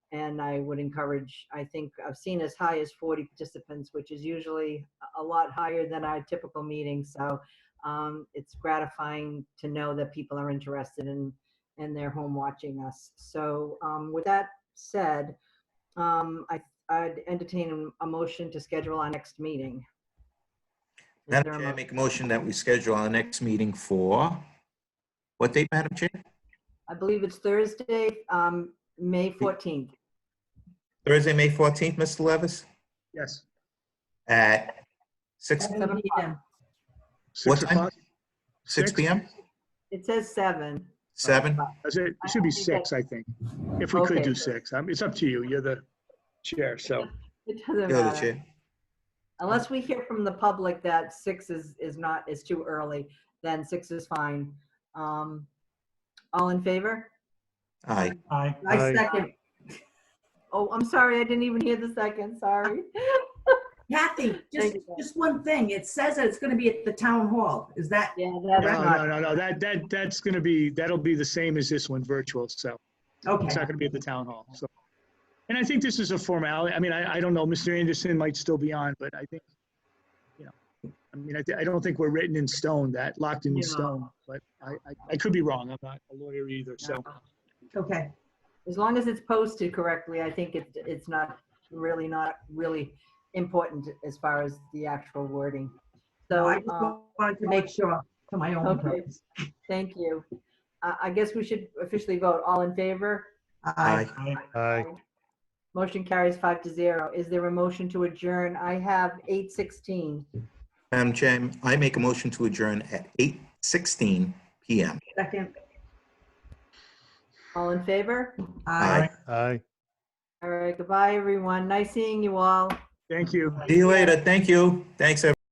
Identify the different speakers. Speaker 1: And I would encourage, I think I've seen as high as 40 participants, which is usually a- a lot higher than our typical meeting. So um, it's gratifying to know that people are interested in, and they're home watching us. So um, with that said, um, I, I'd entertain a motion to schedule our next meeting. Is there
Speaker 2: Madam
Speaker 1: a
Speaker 2: Chair, I
Speaker 1: mo-
Speaker 2: make a motion that we schedule our next meeting for, what date, Madam Chair?
Speaker 1: I believe it's Thursday, um, May 14th.
Speaker 2: Thursday, May 14th, Mr. Levis?
Speaker 3: Yes.
Speaker 2: At 6,
Speaker 1: Seven o'clock.
Speaker 2: What
Speaker 3: Six
Speaker 2: time?
Speaker 3: o'clock?
Speaker 2: 6
Speaker 3: Six?
Speaker 2: PM?
Speaker 1: It says seven.
Speaker 2: 7?
Speaker 3: Is It it should be six, I think, if we could
Speaker 1: Okay.
Speaker 3: do six. Um, It's up to you. You're the chair, so.
Speaker 1: It doesn't
Speaker 2: You're the
Speaker 1: matter.
Speaker 2: chair.
Speaker 1: Unless we hear from the public that six is, is not, is too early, then six is fine. Um, all in favor?
Speaker 2: Aye.
Speaker 4: Aye.
Speaker 1: I second. Oh, I'm sorry, I didn't even hear the second, sorry.
Speaker 5: Kathy,
Speaker 1: Thank
Speaker 5: just,
Speaker 1: you.
Speaker 5: just one thing. It says that it's going to be at the town hall. Is that,
Speaker 1: Yeah,
Speaker 3: No,
Speaker 1: that's
Speaker 3: no,
Speaker 1: not,
Speaker 3: no, no, that, that, that's going to be, that'll be the same as this one, virtual, so. It's
Speaker 5: okay,
Speaker 3: not going to be at the town hall, so. And I think this is a formality. I mean, I, I don't know, Mr. Anderson might still be on, but I think, you know, I mean, I, thi- I don't think we're written in stone, that, locked in
Speaker 1: No.
Speaker 3: stone, but I, I, I could be wrong. I'm not a lawyer either, so.
Speaker 5: okay.
Speaker 1: as long as it's posted correctly, I think it, it's not, really not really important as far as the actual wording.
Speaker 5: So
Speaker 1: So,
Speaker 5: I just
Speaker 1: um,
Speaker 5: wanted to make sure for my own
Speaker 1: Okay.
Speaker 5: purpose.
Speaker 1: thank you. Uh, I, I guess we should officially vote, all in favor?
Speaker 5: Aye.
Speaker 4: Aye.
Speaker 6: Aye.
Speaker 1: Motion carries five to zero. Is there a motion to adjourn? I have 8:16.
Speaker 2: Madam Chair, I make a motion to adjourn at 8:16 PM.
Speaker 5: Second.
Speaker 1: All in favor?
Speaker 2: Aye.
Speaker 6: Aye.
Speaker 1: All right, goodbye, everyone. Nice seeing you all.
Speaker 3: Thank you.
Speaker 2: See you later. Thank you. Thanks, everyone.